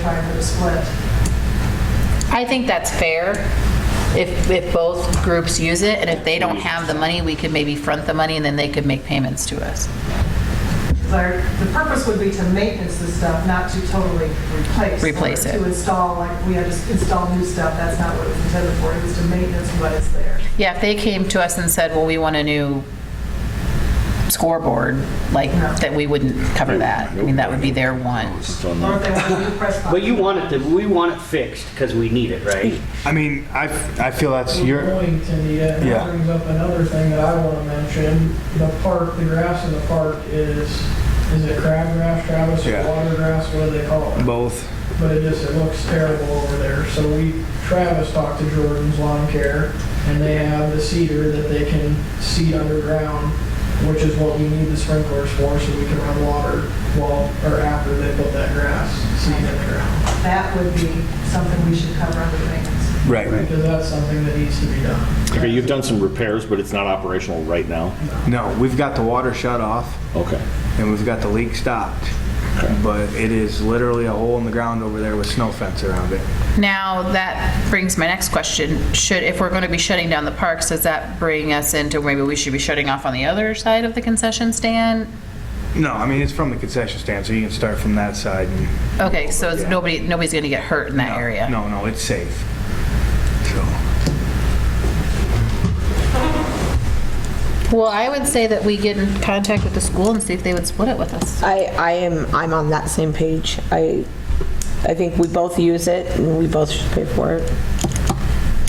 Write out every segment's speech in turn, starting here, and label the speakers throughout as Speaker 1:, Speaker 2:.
Speaker 1: trying for the split.
Speaker 2: I think that's fair if, if both groups use it, and if they don't have the money, we could maybe front the money, and then they could make payments to us.
Speaker 1: Their- The purpose would be to maintenance the stuff, not to totally replace.
Speaker 2: Replace it.
Speaker 1: To install, like, we had to install new stuff, that's not what it was intended for, it was to maintenance what is there.
Speaker 2: Yeah, if they came to us and said, well, we want a new scoreboard, like,
Speaker 1: No.
Speaker 2: that we wouldn't cover that. I mean, that would be their one.
Speaker 1: Or if they want a new press box.
Speaker 3: But you want it to, we want it fixed because we need it, right?
Speaker 4: I mean, I, I feel that's
Speaker 5: Your
Speaker 4: your,
Speaker 5: point, and that
Speaker 4: Yeah.
Speaker 5: brings up another thing that I want to mention. The park, the grass in the park is, is it crabgrass, Travis, or
Speaker 4: Yeah.
Speaker 5: water grass, what do they call it?
Speaker 4: both.
Speaker 5: But it just, it looks terrible over there. So we, Travis talked to Jordan's Lawn Care, and they have the cedar that they can seed underground, which is what we need the sprinklers for, so we can run water while, or after they put that grass seed in the ground.
Speaker 1: That would be something we should cover under maintenance.
Speaker 4: Right.
Speaker 5: Because that's something that needs to be done.
Speaker 6: Okay, you've done some repairs, but it's not operational right now?
Speaker 4: No, we've got the water shut off
Speaker 6: Okay.
Speaker 4: and we've got the leak stopped. But it is literally a hole in the ground over there with snow fence around it.
Speaker 2: Now, that brings my next question. Should, if we're going to be shutting down the parks, does that bring us into maybe we should be shutting off on the other side of the concession stand?
Speaker 4: No, I mean, it's from the concession stand, so you can start from that side and.
Speaker 2: Okay, so it's- nobody, nobody's going to get hurt in that area?
Speaker 4: No, no, it's safe. So,
Speaker 2: Well, I would say that we get in contact with the school and see if they would split it with us.
Speaker 7: I, I am, I'm on that same page. I, I think we both use it and we both should pay for it.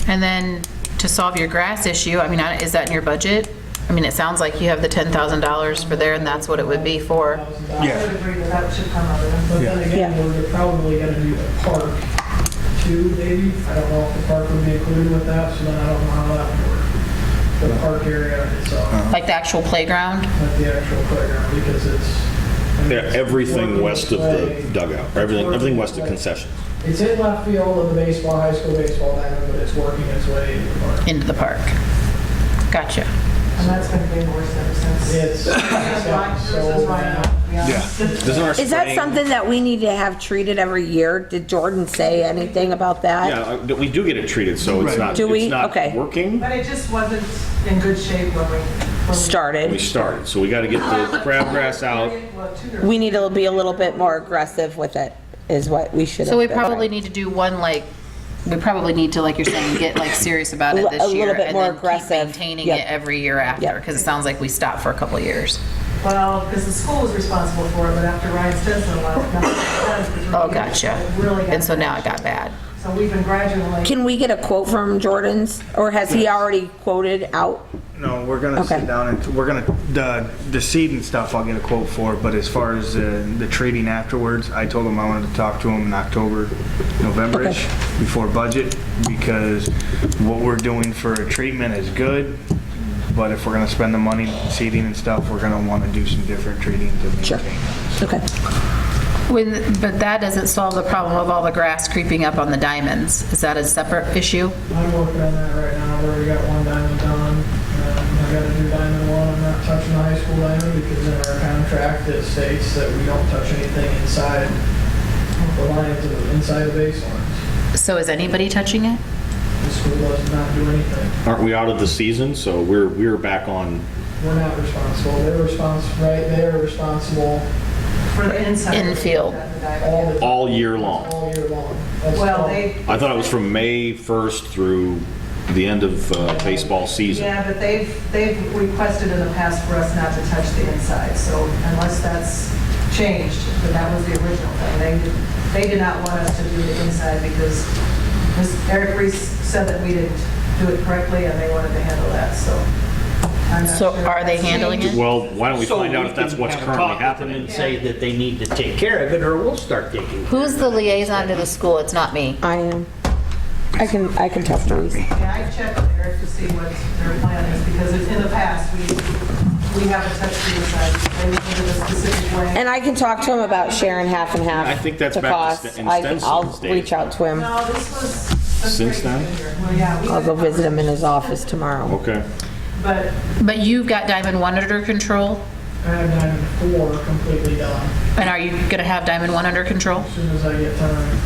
Speaker 2: And then to solve your grass issue, I mean, I- is that in your budget? I mean, it sounds like you have the $10,000 for there and that's what it would be for.
Speaker 1: I would
Speaker 4: yeah,
Speaker 1: agree that that should come under them.
Speaker 5: But then again, we're probably gonna do the park too, maybe. I don't know if the park would be included with that, so then I don't know how that would work. The park area itself,
Speaker 2: Like the actual playground?
Speaker 5: not the actual playground, because it's. I mean,
Speaker 6: Yeah,
Speaker 5: it's
Speaker 6: Everything
Speaker 5: working
Speaker 6: west of
Speaker 5: play.
Speaker 6: the dugout, or everything, everything west of concession.
Speaker 5: It's in left field of the baseball, high school baseball diamond, but it's working its way into the park.
Speaker 2: into the park. Gotcha.
Speaker 1: And that's been getting worse ever since.
Speaker 5: It's.
Speaker 1: Versus right- versus right now, to be honest.
Speaker 4: yeah.
Speaker 6: Doesn't our
Speaker 7: Is that
Speaker 6: spring-
Speaker 7: something that we need to have treated every year? Did Jordan say anything about that?
Speaker 6: Yeah, uh, we do get it treated, so
Speaker 4: Right.
Speaker 6: it's not,
Speaker 7: Do we?
Speaker 6: it's
Speaker 7: Okay.
Speaker 6: not working.
Speaker 1: But it just wasn't in good shape when we. when we-
Speaker 6: We
Speaker 7: Started.
Speaker 6: started, so we gotta get the crabgrass out.
Speaker 1: Well, two years.
Speaker 7: We need to be a little bit more aggressive with it, is what we should have.
Speaker 2: So we
Speaker 7: been.
Speaker 2: probably need to do one like, we probably need to, like you're saying, get like serious about it
Speaker 7: A
Speaker 2: this
Speaker 7: little
Speaker 2: year.
Speaker 7: bit
Speaker 2: and
Speaker 7: more
Speaker 2: then keep
Speaker 7: aggressive.
Speaker 2: Maintaining
Speaker 7: Yep.
Speaker 2: it every year after,
Speaker 7: Yep.
Speaker 2: because it sounds like we stopped for a couple of years.
Speaker 1: Well, because the school was responsible for it, but after Ryan Stinson left, nothing was done for three
Speaker 2: Oh,
Speaker 1: years.
Speaker 2: gotcha.
Speaker 1: It Really got.
Speaker 2: And so now it got bad.
Speaker 1: So we've been gradually.
Speaker 7: Can we get a quote from Jordan's, or has he already quoted out?
Speaker 4: No, we're gonna sit
Speaker 7: Okay.
Speaker 4: down and, we're gonna, the, the seed and stuff I'll get a quote for, but as far as the, the treating afterwards, I told him I wanted to talk to him in October, November-ish, before budget, because what we're doing for a treatment is good, but if we're gonna spend the money seeding and stuff, we're gonna wanna do some different treating to
Speaker 7: Sure.
Speaker 4: maintain.
Speaker 7: Okay.
Speaker 2: When, but that doesn't solve the problem of all the grass creeping up on the diamonds. Is that a separate issue?
Speaker 5: I'm working on that right now, I've already got one diamond done. Um, I gotta do diamond one, I'm not touching the high school diamond because in our contract it states that we don't touch anything inside the lines, of- inside the baselines.
Speaker 2: So is anybody touching it?
Speaker 5: The school does not do anything.
Speaker 6: Aren't we out of the season, so we're, we're back on,
Speaker 5: We're not responsible, they're responsible, right, they are responsible
Speaker 1: For the inside.
Speaker 2: Infield.
Speaker 5: all the.
Speaker 6: all year long.
Speaker 5: All year long. That's
Speaker 1: Well,
Speaker 5: all.
Speaker 1: they,
Speaker 6: I thought it was from May 1st through the end of uh, baseball season.
Speaker 1: yeah, but they've, they've requested in the past for us not to touch the inside, so unless that's changed, but that was the original thing. They, did- they did not want us to do the inside because Ms. Eric Reese said that we didn't do it correctly and they wanted to handle that, so. I'm not
Speaker 2: So
Speaker 1: sure if
Speaker 2: are they
Speaker 1: that's
Speaker 2: handling
Speaker 1: changed.
Speaker 2: it?
Speaker 6: Well, why don't we
Speaker 3: So
Speaker 6: find out if that's
Speaker 3: can
Speaker 6: what's
Speaker 3: have a
Speaker 6: currently
Speaker 3: talk with them
Speaker 6: happening?
Speaker 3: And say that they need to take care of it, or we'll start taking. care
Speaker 2: Who's the liaison to the school? It's not me.
Speaker 7: I am. I can, I can talk to him.
Speaker 1: Yeah, I checked with Eric to see what their plan is, because it's in the past, we, we haven't touched the inside. They went into a specific way.
Speaker 7: And I can talk to him about sharing half and half.
Speaker 6: I think that's
Speaker 7: the
Speaker 6: back to
Speaker 7: cost.
Speaker 6: Sten- in
Speaker 7: I- I'll
Speaker 6: Stenson's days.
Speaker 7: reach out to him.
Speaker 1: No, this was. that's
Speaker 6: Since
Speaker 1: great.
Speaker 6: then?
Speaker 1: Well, yeah. we
Speaker 7: I'll go
Speaker 1: went-
Speaker 7: visit him in his office tomorrow.
Speaker 6: Okay.
Speaker 1: But
Speaker 2: But you've got Diamond One under control?
Speaker 5: I have diamond four completely done
Speaker 2: And are you going to have Diamond One under control?
Speaker 5: as soon as I get time.